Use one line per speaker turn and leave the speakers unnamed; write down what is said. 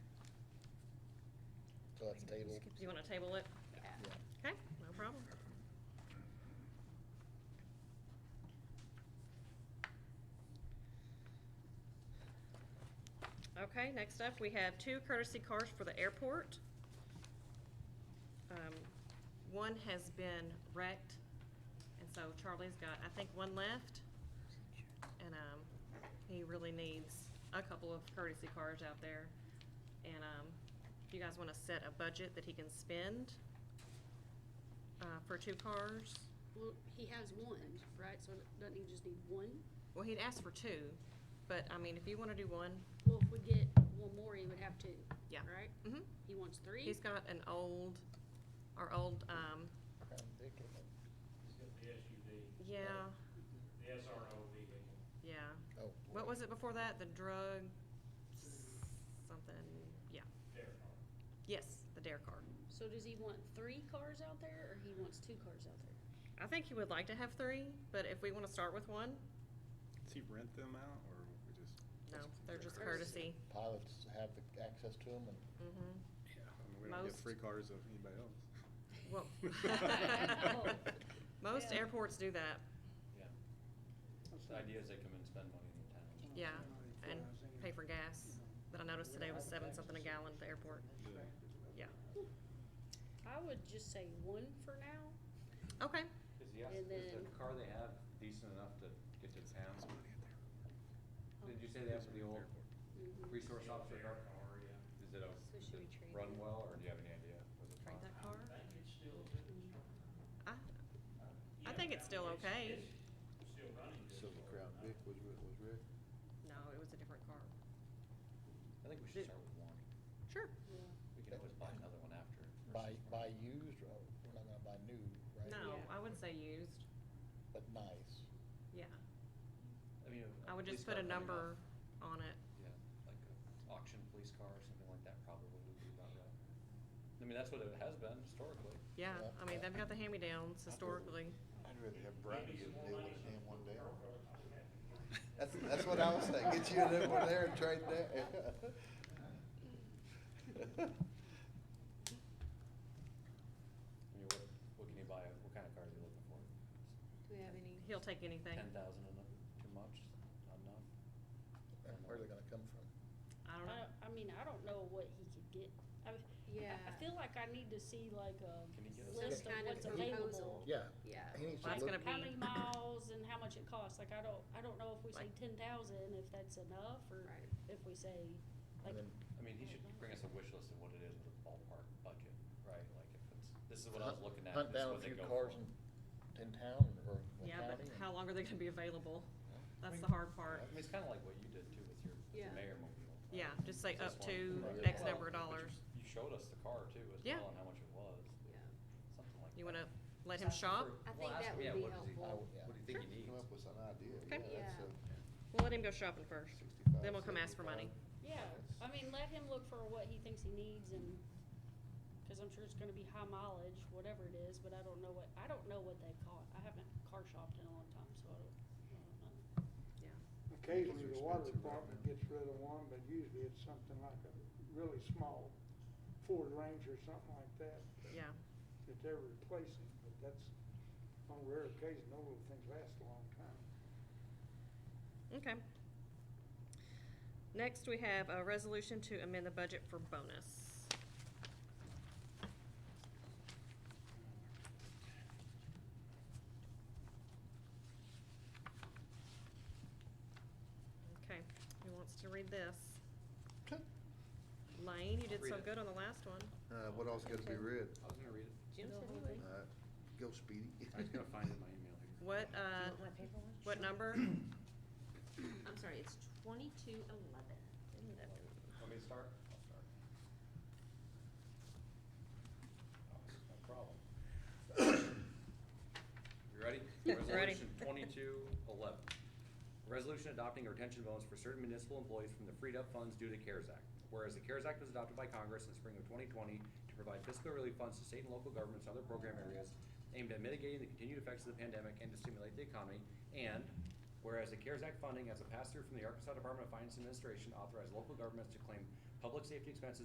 So that's tabled.
Do you want to table it?
Yeah.
Yeah.
Okay, no problem. Okay, next up, we have two courtesy cars for the airport. Um, One has been wrecked, and so Charlie's got, I think, one left. And um, he really needs a couple of courtesy cars out there. And um, if you guys want to set a budget that he can spend uh, for two cars,
Well, he has one, right? So doesn't he just need one?
well, he'd asked for two, but I mean, if you want to do one,
Well, if we get one more, he would have two.
Yeah.
Right?
Mhm.
He wants three?
he's got an old, our old, um,
It's got The SUV.
yeah,
The SRO vehicle.
yeah.
Oh,
What
boy.
was it before that? The drug, something, yeah.
There.
Yes, the dare car.
So does he want three cars out there or he wants two cars out there?
I think he would like to have three, but if we want to start with one,
Does he rent them out, or we just?
no, they're just courtesy.
Courtesy.
Pilots have the access to them and
Mm-hmm.
Yeah, I mean, we don't get
Most-
free cars of anybody else.
Well,
Oh.
most
Yeah.
airports do that,
Yeah. The idea is they come in and spend money in the town.
yeah, and pay for gas. That I noticed today was seven something a gallon at the airport.
Yeah.
Yeah.
I would just say one for now.
Okay.
Is the,
And
is the
then-
car they have decent enough to get to town?
Oh,
Did you say they have the old
Mhm.
resource officer
Their
car?
car, yeah.
Is it a,
So
does
should we
it
trade
run
it?
well, or do you have any idea? Was it
Trade
fine?
that car?
I think it's still.
I, I think it's still okay.
It's still running. good
Silver
for
Crown
it,
Vic
huh?
was, was Rick.
No, it was a different car.
I think we
Did-
should start with one.
Sure.
Yeah.
We can always buy another one after.
buy, buy used, or we're not gonna buy new, right?
No,
Yeah.
I would say used,
But nice.
yeah.
I mean.
I would
police
just put a
car coming
number
off-
on it.
Yeah, like a auction police car or something like that probably would be about right. I mean, that's what it has been historically.
Yeah, I mean, they've got the hand-me-downs historically.
I'd rather have Brian get a new one than him one day.
That's, that's what I was saying, get you a new one there and trade that.
I mean, what, what can you buy, what kind of car are you looking for?
Do we have any?
He'll take anything.
Ten thousand enough, too much, not enough?
And Where are they gonna come from?
I don't
I,
know.
I mean, I don't know what he could get. I, mean, I- I
Yeah.
feel like I need to see like a
Can he get us-
list
Some
of
kind of
what's
proposal.
available.
Yeah.
Yeah.
He needs to
Well, that's
look-
gonna
How many
be-
miles and how much it costs, like, I don't, I don't know if we say
Like-
ten thousand, if that's enough, or
Right.
if we say,
And
like.
then-
I mean, he should bring us a wish list of what it is with a ballpark budget, right? Like if it's, this is what I was looking at,
Hunt
this is
down a
what they
few
go
cars
for.
in, in town or in the county.
Yeah, but how
and-
long are they gonna be available? That's the
I mean-
hard part.
I mean, it's kinda like what you did too with your, with your
Yeah.
mayor mobile. right?
Yeah, just say
So it's
up to
one- Right.
X
number of
Well, but you-
dollars.
You showed us the car too as
Yeah.
well and how much it was,
Yeah.
something like that.
You wanna let
Just
him
ask
shop?
for-
I think
well, ask
that
him,
would
yeah,
be
what does he-
helpful.
What do you think he needs?
Come up with some idea, yeah,
Okay.
that's
Yeah.
a.
We'll let him go shopping first.
65,
Then we'll come ask for money.
75.
Yeah, I mean, let him look for what he thinks he needs and, cause I'm sure it's gonna be high mileage, whatever it is, but I don't know what, I don't know what they call it. I haven't car shopped in a long time, so I don't, I don't know.
Yeah.
Occasionally, the water
Expensive right
department
now.
gets rid of one, but usually it's something like a really small Ford Ranger, something like that.
Yeah.
That they're replacing, but that's on rare occasion, those little things last a long time.
Okay. Next, we have a resolution to amend the budget for bonus. Okay, who wants to read this? Lane, you did
Read
so
it.
good on the last one.
Uh, what else gotta be read?
I was gonna read it.
Jim said he
Uh,
would.
Go speedy.
I was gonna find it in my email here.
What, uh, what number?
I'm sorry, it's twenty-two eleven.
Want me to start? I'll start. Oh, this is No problem. You ready?
Ready.
Resolution twenty-two eleven. Resolution adopting a retention bonus for certain municipal employees from the freed up funds due to CARES Act. Whereas the CARES Act was adopted by Congress in the spring of twenty twenty to provide fiscal relief funds to state and local governments and other program areas aimed at mitigating the continued effects of the pandemic and to stimulate the economy. And whereas the CARES Act funding as a pass-through from the Arkansas Department of Finance and Administration authorized local governments to claim public safety expenses